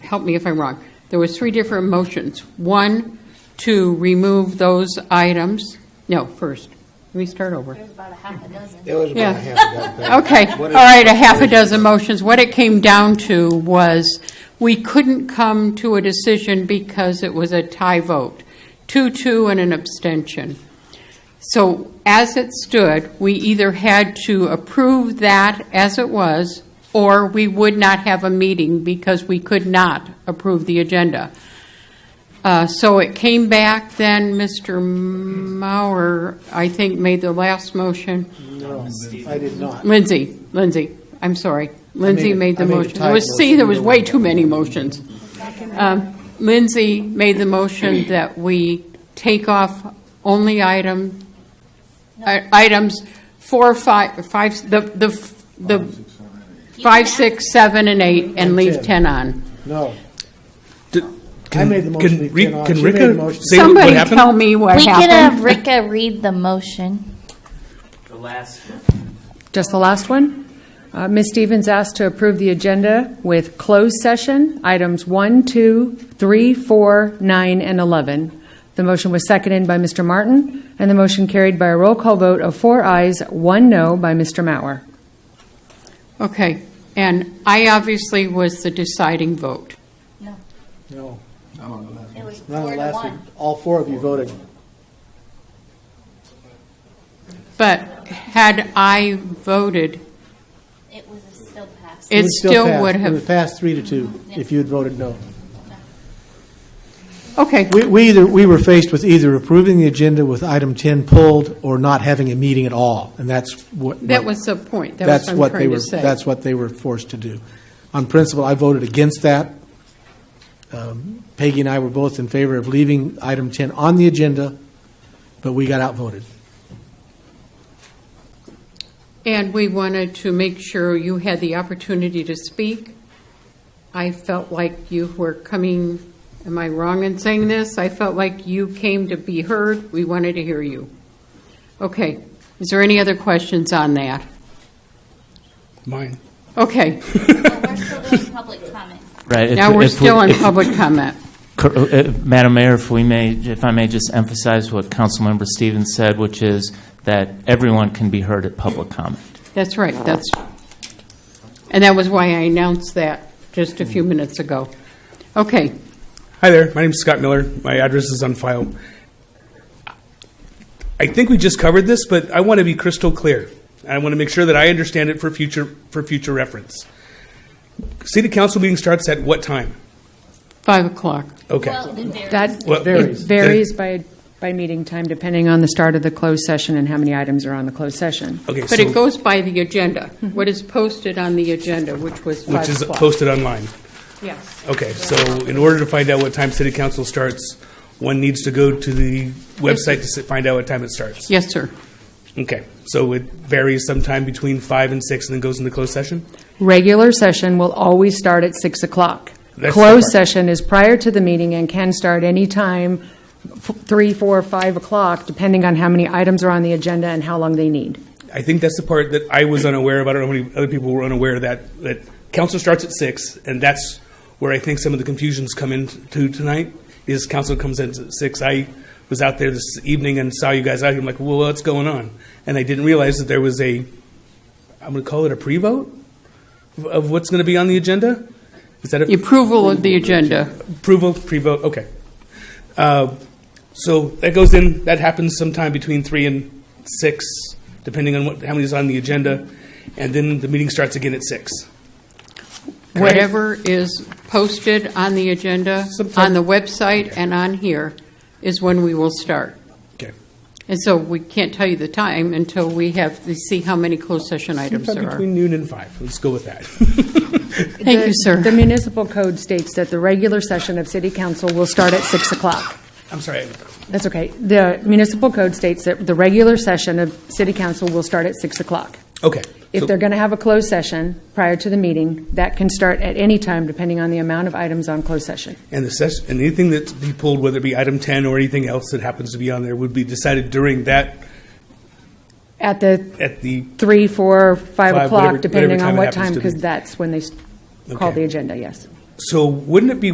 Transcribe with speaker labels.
Speaker 1: help me if I'm wrong, there was three different motions. One, to remove those items, no, first, let me start over.
Speaker 2: There's about a half a dozen.
Speaker 3: It was
Speaker 1: Yeah.
Speaker 3: about half a dozen. things.
Speaker 1: Okay, all
Speaker 3: What is-
Speaker 1: right, a half a dozen motions. What it came down to was, we couldn't come to a decision because it was a tie vote, two-two and an abstention. So as it stood, we either had to approve that as it was, or we would not have a meeting because we could not approve the agenda. Uh, So it came back, then Mr. Mauer, I think, made the last motion.
Speaker 3: No, I did not.
Speaker 1: Lindsay, Lindsay, I'm sorry. Lindsay
Speaker 3: I made a-
Speaker 1: made the
Speaker 3: I made a
Speaker 1: motion.
Speaker 3: tied
Speaker 1: There was, see,
Speaker 3: motion.
Speaker 1: there was way too many motions. Um, Lindsay made the motion that we take off only item, i- items four, five, five, the, the, the five, six, seven, and eight, and leave
Speaker 3: ten.
Speaker 1: 10 on.
Speaker 3: No.
Speaker 4: Can,
Speaker 3: I made the motion
Speaker 4: can
Speaker 3: to leave
Speaker 4: Ri-
Speaker 3: ten on.
Speaker 4: Can
Speaker 3: She
Speaker 4: Rika
Speaker 3: made the motion.
Speaker 4: say what-
Speaker 1: Somebody
Speaker 4: what happened?
Speaker 1: tell me what
Speaker 2: We could have
Speaker 1: happened.
Speaker 2: Rika read the motion.
Speaker 5: The last
Speaker 6: Just the last one. Uh, Ms. Stevens asked to approve the agenda with closed session, items 1, 2, 3, 4, 9, and 11. The motion was seconded by Mr. Martin, and the motion carried by a roll call vote of four ayes, one no by Mr. Mauer.
Speaker 1: Okay, and I obviously was the deciding vote.
Speaker 2: No,
Speaker 3: No,
Speaker 2: it was four
Speaker 3: not on the
Speaker 2: to
Speaker 3: last one.
Speaker 2: one.
Speaker 3: All four of you voted.
Speaker 1: But had I voted,
Speaker 2: It was still passed.
Speaker 1: it
Speaker 3: was
Speaker 1: still
Speaker 3: passed.
Speaker 1: would
Speaker 3: It
Speaker 1: have
Speaker 3: would pass three to two if you had voted no.
Speaker 1: Okay,
Speaker 3: We, we either, we were faced with either approving the agenda with item 10 pulled or not having a meeting at all, and that's what.
Speaker 1: that was the point, that
Speaker 3: That's
Speaker 1: was what
Speaker 3: what
Speaker 1: I'm
Speaker 3: they
Speaker 1: trying
Speaker 3: were,
Speaker 1: to say.
Speaker 3: that's what they were forced to do. On principle, I voted against that. Um, Peggy and I were both in favor of leaving item 10 on the agenda, but we got outvoted.
Speaker 1: And we wanted to make sure you had the opportunity to speak. I felt like you were coming, am I wrong in saying this? I felt like you came to be heard, we wanted to hear you. Okay, is there any other questions on that?
Speaker 4: Mine.
Speaker 1: Okay,
Speaker 2: No, We're still doing public comment.
Speaker 5: Right. if-
Speaker 1: now we're
Speaker 5: if we-
Speaker 1: still on
Speaker 5: if-
Speaker 1: public comment.
Speaker 5: cor- uh, Madam Mayor, if we may, if I may just emphasize what Councilmember Stevens said, which is that everyone can be heard at public comment.
Speaker 1: That's right, that's, and that was why I announced that just a few minutes ago. Okay,
Speaker 4: Hi there. My name's Scott Miller. My address is on file. I think we just covered this, but I want to be crystal clear. I want to make sure that I understand it for future for future reference. City council meeting starts at what time?
Speaker 1: 5 o'clock.
Speaker 4: Okay.
Speaker 2: Well, it varies.
Speaker 6: That
Speaker 4: Well,
Speaker 6: it
Speaker 4: varies.
Speaker 6: varies by, by meeting time depending on the start of the closed session and how many items are on the closed session.
Speaker 4: okay.
Speaker 1: But
Speaker 4: so,
Speaker 1: it goes by the agenda, what is posted on the agenda, which was 5
Speaker 4: which is
Speaker 1: o'clock.
Speaker 4: posted online.
Speaker 1: Yes.
Speaker 4: Okay. So in order to find out what time city council starts, one needs to go to the website to s- find out what time it starts.
Speaker 1: Yes, sir.
Speaker 4: Okay. So it varies sometime between five and six, and then goes into closed session.
Speaker 6: Regular session will always start at 6 o'clock.
Speaker 4: That's the
Speaker 6: Closed
Speaker 4: part.
Speaker 6: session is prior to the meeting and can start any time, f- 3, 4, 5 o'clock, depending on how many items are on the agenda and how long they need.
Speaker 4: I think that's the part that I was unaware of. I don't know how many other people were unaware of that. That council starts at six, and that's where I think some of the confusions come into tonight. Is council comes in at six? I was out there this evening and saw you guys out here. I'm like, well, what's going on? And I didn't realize that there was a, I'm going to call it a pre-vote of- of what's going to be on the agenda. Is that a
Speaker 1: The Approval of the agenda.
Speaker 4: Approval, pre-vote, okay. Uh, So that goes in, that happens sometime between three and six, depending on what, how many is on the agenda, and then the meeting starts again at six.
Speaker 1: Whatever is posted on the agenda,
Speaker 4: Sometime-
Speaker 1: on the website and on here, is when we will start.
Speaker 4: Okay.
Speaker 1: And so we can't tell you the time until we have, to see how many closed session items
Speaker 4: Sometime
Speaker 1: there are.
Speaker 4: between noon and five, let's go with that.
Speaker 1: Thank you,
Speaker 6: The- The
Speaker 1: sir.
Speaker 6: municipal code states that the regular session of city council will start at 6 o'clock.
Speaker 4: I'm sorry,
Speaker 6: That's okay. The municipal code states that the regular session of city council will start at 6 o'clock.
Speaker 4: okay.
Speaker 6: If
Speaker 4: So-
Speaker 6: they're going to have a closed session prior to the meeting, that can start at any time, depending on the amount of items on closed session.
Speaker 4: And the session, and anything that's be pulled, whether it be item ten or anything else that happens to be on there, would be decided during that,
Speaker 6: At the
Speaker 4: at the,
Speaker 6: three, four, five
Speaker 4: Five, whatever-
Speaker 6: o'clock,
Speaker 4: whatever
Speaker 6: depending
Speaker 4: time
Speaker 6: on
Speaker 4: it
Speaker 6: what
Speaker 4: happens
Speaker 6: time,
Speaker 4: to
Speaker 6: because
Speaker 4: be.
Speaker 6: that's when they s- call
Speaker 4: Okay.
Speaker 6: the agenda, yes.
Speaker 4: So wouldn't it be